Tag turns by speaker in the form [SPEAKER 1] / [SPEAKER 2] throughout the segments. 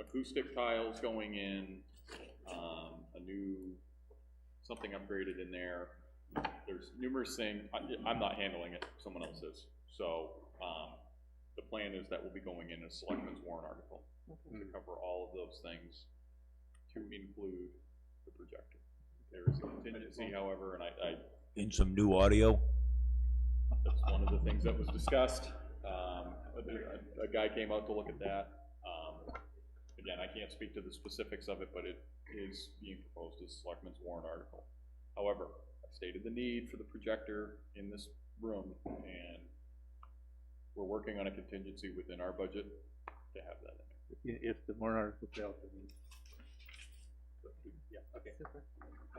[SPEAKER 1] acoustic tiles going in, um, a new, something upgraded in there. There's numerous things, I, I'm not handling it, someone else is. So, um, the plan is that will be going in a selectmen's warrant article to cover all of those things, to include the projector. There is a contingency, however, and I, I
[SPEAKER 2] in some new audio.
[SPEAKER 1] That's one of the things that was discussed. Um, a, a guy came out to look at that. Um, again, I can't speak to the specifics of it, but it is being proposed as Selectman's warrant article. However, I stated the need for the projector in this room, and we're working on a contingency within our budget to have that in there.
[SPEAKER 3] If the warrant article fails, then
[SPEAKER 1] Yeah, okay.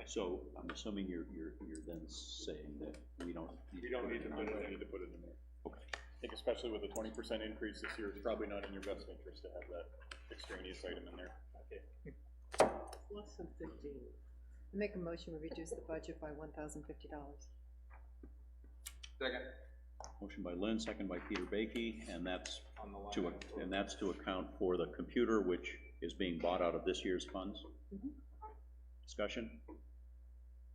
[SPEAKER 2] So I'm assuming you're, you're, you're then saying that we don't.
[SPEAKER 1] We don't need to put it, need to put it in there.
[SPEAKER 2] Okay.
[SPEAKER 1] I think especially with a twenty percent increase this year, it's probably not in your best interest to have that extraneous item in there.
[SPEAKER 4] Less than fifteen. I make a motion, we reduce the budget by one thousand fifty dollars.
[SPEAKER 2] Motion by Lynn, second by Peter Baiki, and that's to, ac- and that's to account for the computer, which is being bought out of this year's funds.
[SPEAKER 4] Mhm.
[SPEAKER 2] Discussion?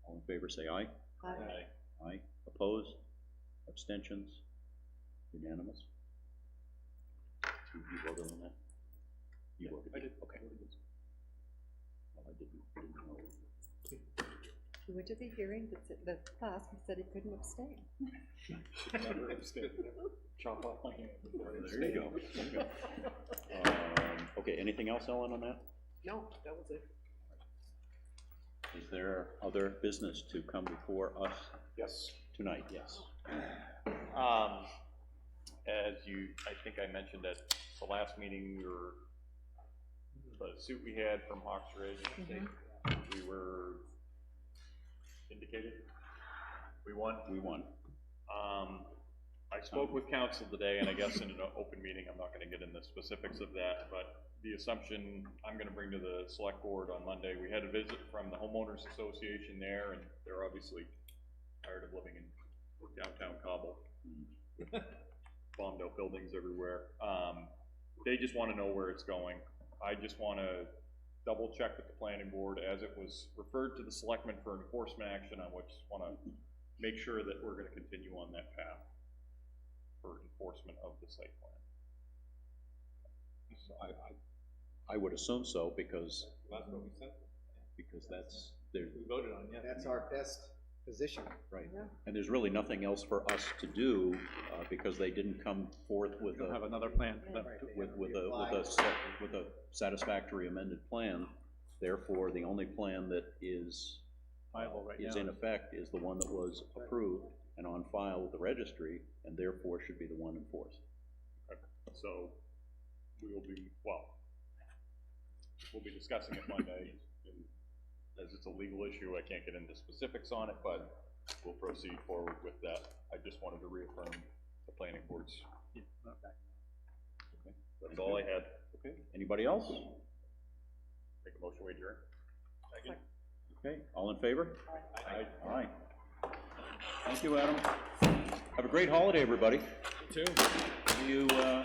[SPEAKER 2] All in favor, say aye.
[SPEAKER 4] Aye.
[SPEAKER 2] Aye. Opposed? Abstentions? Unanimous? You you voted on that? You voted? I did. Okay. Well, I didn't, didn't know.
[SPEAKER 4] He went to the hearing, that, said- that passed, and said he couldn't abstain.
[SPEAKER 1] Chop off my hand.
[SPEAKER 2] There you go. Um, Okay, anything else, Ellen, on that?
[SPEAKER 4] No, that was it.
[SPEAKER 2] Is there other business to come before us
[SPEAKER 1] Yes.
[SPEAKER 2] tonight? Yes.
[SPEAKER 1] Um, as you, I think I mentioned at the last meeting, we were, the suit we had from Hawks Ridge, I think,
[SPEAKER 2] Mm-hmm.
[SPEAKER 1] we were indicated, we won.
[SPEAKER 2] We won.
[SPEAKER 1] Um, I spoke with council today, and I guess in an open meeting, I'm not gonna get into specifics of that, but the assumption I'm gonna bring to the select board on Monday, we had a visit from the homeowners association there, and they're obviously tired of living in downtown Cobble. Bombed out buildings everywhere. Um, they just wanna know where it's going. I just wanna double check with the planning board as it was referred to the selectmen for enforcement action, I just wanna make sure that we're gonna continue on that path for enforcement of the site plan.
[SPEAKER 2] I, I, I would assume so, because. That's what we said. Because that's, there,
[SPEAKER 5] That's our best position.
[SPEAKER 2] right,
[SPEAKER 4] Yeah.
[SPEAKER 2] and there's really nothing else for us to do, uh, because they didn't come forth
[SPEAKER 3] we
[SPEAKER 2] with
[SPEAKER 3] don't have
[SPEAKER 2] a,
[SPEAKER 3] another plan.
[SPEAKER 4] Yeah.
[SPEAKER 3] but-
[SPEAKER 2] with, with a, with a, sa- with a satisfactory amended plan. Therefore, the only plan that is
[SPEAKER 3] viable right
[SPEAKER 2] is
[SPEAKER 3] now.
[SPEAKER 2] in effect is the one that was approved and on file with the registry, and therefore should be the one enforced.
[SPEAKER 1] So, we will be, well, we'll be discussing it Monday, and as it's a legal issue, I can't get into specifics on it, but we'll proceed forward with that. I just wanted to reaffirm the planning boards. That's all I had.
[SPEAKER 2] Okay. Anybody else?
[SPEAKER 1] Make a motion, we adjourn.
[SPEAKER 2] Okay, all in favor?
[SPEAKER 1] Aye.
[SPEAKER 2] All right. Thank you, Adam. Have a great holiday, everybody.
[SPEAKER 1] Two.
[SPEAKER 2] You, uh,